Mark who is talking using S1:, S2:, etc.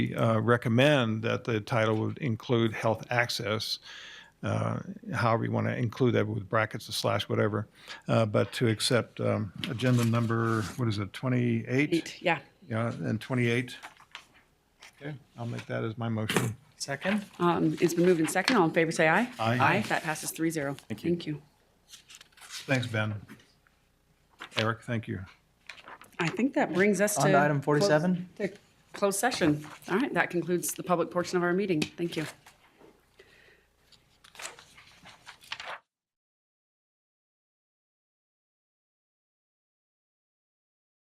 S1: uh, recommend that the title would include health access, uh, however you want to include that with brackets or slash, whatever, uh, but to accept um, agenda number, what is it, 28?
S2: Eight, yeah.
S1: Yeah, and 28. Okay, I'll make that as my motion.
S3: Second?
S2: Um, It's been moved in second. All in favor, say aye.
S1: Aye.
S2: Aye, that passes three zero. Thank you. Thank you.
S1: Thanks, Ben. Eric, thank you.
S2: I think that brings us to.
S3: On to item 47?
S2: close- to Closed session. All right, that concludes the public portion of our meeting. Thank you.